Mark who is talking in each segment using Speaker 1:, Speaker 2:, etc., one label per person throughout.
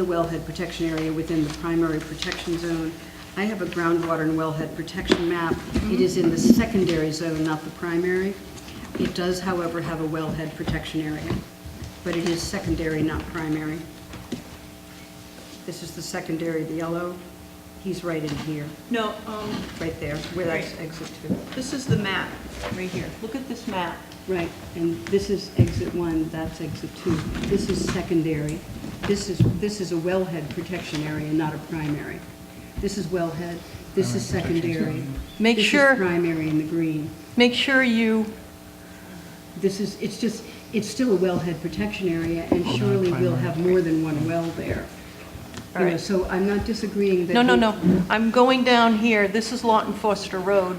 Speaker 1: the wellhead protection area within the primary protection zone. I have a groundwater and wellhead protection map. It is in the secondary zone, not the primary. It does, however, have a wellhead protection area, but it is secondary, not primary. This is the secondary, the yellow. He's right in here,
Speaker 2: No, um,
Speaker 1: right there, where that's exit two.
Speaker 2: this is the map, right here. Look at this map.
Speaker 1: Right, and this is exit one, that's exit two. This is secondary. This is, this is a wellhead protection area, not a primary. This is wellhead, this is secondary.
Speaker 3: Make
Speaker 1: This
Speaker 3: sure-
Speaker 1: is primary in the green.
Speaker 3: Make sure you,
Speaker 1: This is, it's just, it's still a wellhead protection area, and surely we'll have more than one well there. You know,
Speaker 3: Alright.
Speaker 1: so I'm not disagreeing that.
Speaker 3: no, no,
Speaker 1: we-
Speaker 3: no, I'm going down here, this is Lawton Foster Road.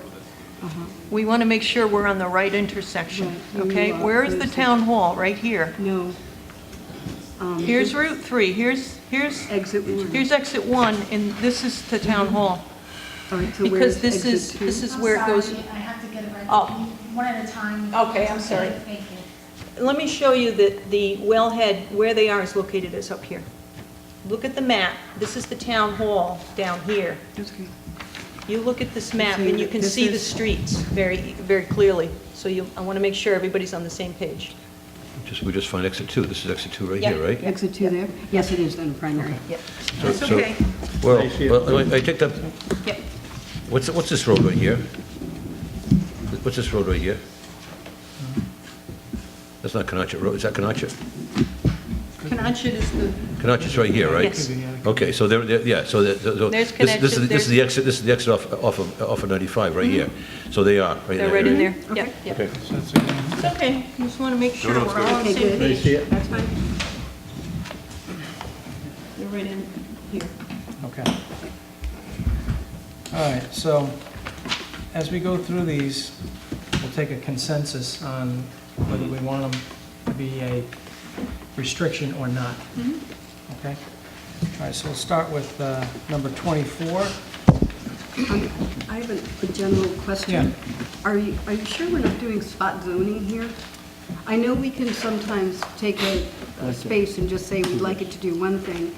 Speaker 1: Uh-huh.
Speaker 3: We want to make sure we're on the right intersection,
Speaker 1: Right, you
Speaker 3: okay?
Speaker 1: are
Speaker 3: Where is the
Speaker 1: close.
Speaker 3: town hall? Right here.
Speaker 1: No. Um,
Speaker 3: Here's Route 3, here's, here's,
Speaker 1: Exit one. Mm-hmm.
Speaker 3: here's exit 1, and this is the town hall.
Speaker 1: All right, so where's
Speaker 3: Because this
Speaker 1: exit
Speaker 3: is,
Speaker 1: two?
Speaker 3: this is
Speaker 4: I'm
Speaker 3: where it goes.
Speaker 4: sorry, I have to get it right.
Speaker 3: Oh.
Speaker 4: One at a time.
Speaker 3: Okay, I'm sorry.
Speaker 4: Thank you.
Speaker 3: Let me show you that the wellhead, where they are is located is up here. Look at the map, this is the town hall down here.
Speaker 1: Okay.
Speaker 3: You look at this map and you can
Speaker 1: This
Speaker 3: see the
Speaker 1: is-
Speaker 3: streets very, very clearly. So you, I want to make sure everybody's on the same page.
Speaker 5: Just, we just find exit two, this is exit two right
Speaker 3: Yeah.
Speaker 5: here, right?
Speaker 1: Exit two there? Yes, it is then a primary.
Speaker 5: So-
Speaker 2: That's
Speaker 5: so-
Speaker 2: okay.
Speaker 5: Well, well, I I take that,
Speaker 3: Yep.
Speaker 5: what's, what's this road right here? What's this road right here? That's not Canachet Road, is that Canachet?
Speaker 3: Canachet is the,
Speaker 5: Canachet's right here, right?
Speaker 3: Yes.
Speaker 5: Okay, so there, there- yeah, so, the- the- so.
Speaker 3: There's
Speaker 5: this- This
Speaker 3: Canachet,
Speaker 5: is, this
Speaker 3: there's- Mm-hmm.
Speaker 5: is the exit, this is the exit off, off of, off of 95, right here. So they are, right there.
Speaker 3: they're right in there. Yep,
Speaker 1: Okay.
Speaker 3: yep.
Speaker 5: Okay.
Speaker 3: It's okay, You just want to make sure
Speaker 5: no, it's
Speaker 3: we're all on the
Speaker 1: Okay,
Speaker 3: same
Speaker 1: good.
Speaker 3: page.
Speaker 6: see it?
Speaker 3: That's fine. They're right in here.
Speaker 6: Okay. All right, so as we go through these, we'll take a consensus on whether we want them to be a restriction or not. Okay? All right, so we'll start with uh, number 24.
Speaker 1: Um, I have a- a general question. Are you, are you sure we're not doing spot zoning here? I know we can sometimes take a a space and just say we'd like it to do one thing,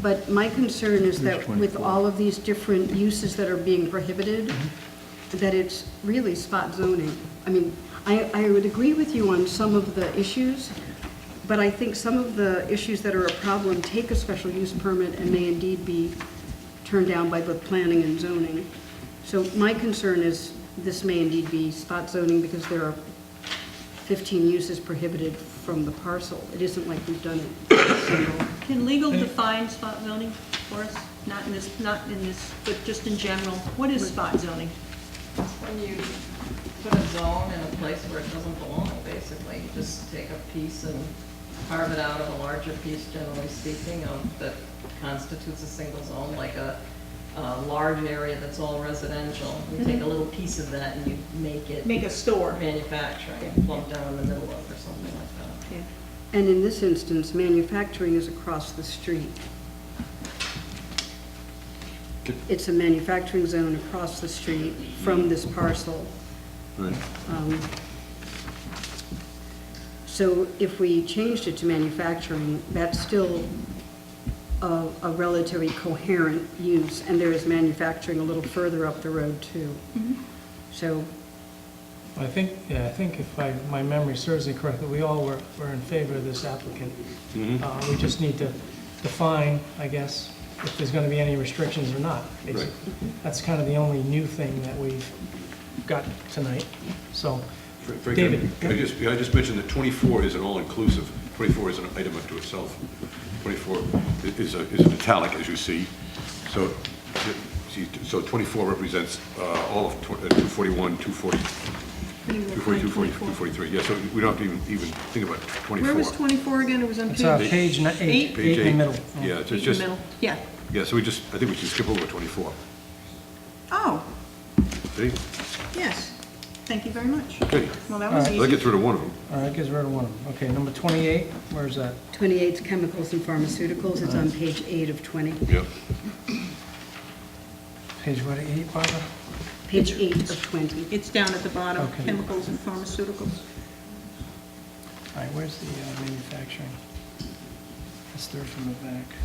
Speaker 1: but my concern is that with all of these different uses that are being prohibited, that it's really spot zoning. I mean, I, I would agree with you on some of the issues, but I think some of the issues that are a problem take a special use permit and may indeed be turned down by both planning and zoning. So my concern is this may indeed be spot zoning because there are 15 uses prohibited from the parcel. It isn't like we've done it single.
Speaker 2: Can legal define spot zoning for us? Not in this, not in this, but just in general. What is spot zoning?
Speaker 7: When you put a zone in a place where it doesn't belong, basically, you just take a piece and carve it out of a larger piece, generally speaking, of, that constitutes a single zone, like a, a large area that's all residential. You take a little piece of that and you make it
Speaker 2: Mm-hmm. Make a store.
Speaker 7: manufacturing, plump down in the middle of or something like that.
Speaker 2: Yeah.
Speaker 1: And in this instance, manufacturing is across the street. It's a manufacturing zone across the street from this parcel. Um, So if we changed it to manufacturing, that's still a a relatively coherent use, and there is manufacturing a little further up the road, too. So,
Speaker 6: I think, yeah, I think if I, my memory serves me correctly, we all were, were in favor of this applicant.
Speaker 8: Mm-hmm.
Speaker 6: Uh, We just need to define, I guess, if there's gonna be any restrictions or not. basically. That's kind of the only new thing that we've got tonight, so.
Speaker 8: Frank,
Speaker 6: David,
Speaker 8: I- I just, I just mentioned that 24 is an all-inclusive, 24 is an item unto itself. 24 i- is a, is an italic, as you see. So, see, so 24 represents uh, all of tw- uh, 241, 240, 242, 243. Yeah, so we don't have to even, even think about 24.
Speaker 2: Where was 24 again? It was on
Speaker 6: It's
Speaker 2: page...
Speaker 6: uh, page ni-
Speaker 2: Eight?
Speaker 6: eight, eight
Speaker 8: Page
Speaker 6: in the middle.
Speaker 8: Yeah,
Speaker 2: Page
Speaker 8: it's
Speaker 2: in the
Speaker 8: just,
Speaker 2: middle. Yeah.
Speaker 8: yeah, so we just, I think we should skip over 24.
Speaker 2: Oh,
Speaker 8: See?
Speaker 2: yes. Thank you very much.
Speaker 8: Okay.
Speaker 2: Well, that was
Speaker 6: All
Speaker 8: Let's
Speaker 2: easy.
Speaker 8: get through to one of them.
Speaker 6: All right, gives rid of one. Okay, number 28, where's that?
Speaker 1: 28's chemicals and pharmaceuticals, it's on page 8 of 20.
Speaker 8: Yeah.
Speaker 6: Page what, eight, Barbara?
Speaker 1: Page 8 of 20.
Speaker 2: It's down at the bottom,
Speaker 6: Okay.
Speaker 2: chemicals and pharmaceuticals.
Speaker 6: All right, where's the uh, manufacturing? That's third from the back.